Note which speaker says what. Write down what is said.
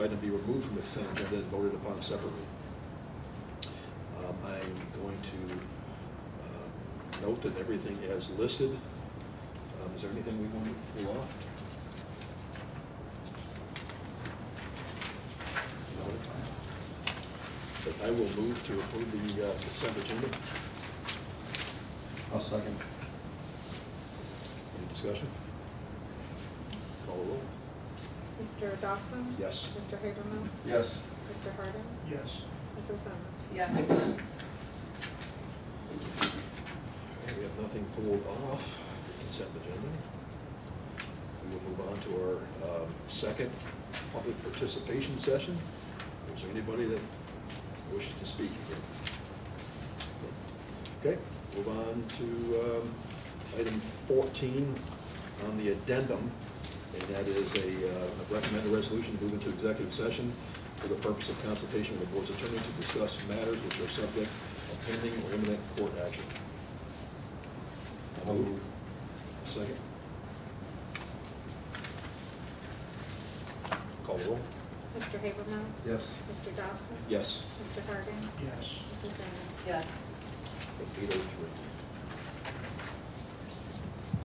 Speaker 1: item be removed from the consent agenda and voted upon separately. Um, I'm going to um, note that everything is listed. Um, Is there anything we want to pull off? No. But I will move to approve the uh, consent agenda.
Speaker 2: I'll second.
Speaker 1: Any discussion? Call the roll.
Speaker 3: Mr. Dawson?
Speaker 1: Yes.
Speaker 3: Mr. Haberman?
Speaker 2: Yes.
Speaker 3: Mr. Harden?
Speaker 2: Yes.
Speaker 3: Mrs. Ennis?
Speaker 4: Yes.
Speaker 1: We have nothing pulled off the consent agenda. We will move on to our um, second public participation session. Is there anybody that wishes to speak here? Okay, move on to um, item 14 on the addendum, and that is a uh, a recommended resolution moving to executive session for the purpose of consultation with the board's attorney to discuss matters which are subject of pending or imminent court action.
Speaker 2: I'll move.
Speaker 1: Second. Call the roll.
Speaker 3: Mr. Haberman?
Speaker 2: Yes.
Speaker 3: Mr. Dawson?
Speaker 1: Yes.
Speaker 3: Mr. Harden?
Speaker 2: Yes.
Speaker 3: Mrs. Ennis?
Speaker 4: Yes.
Speaker 1: Eight oh three.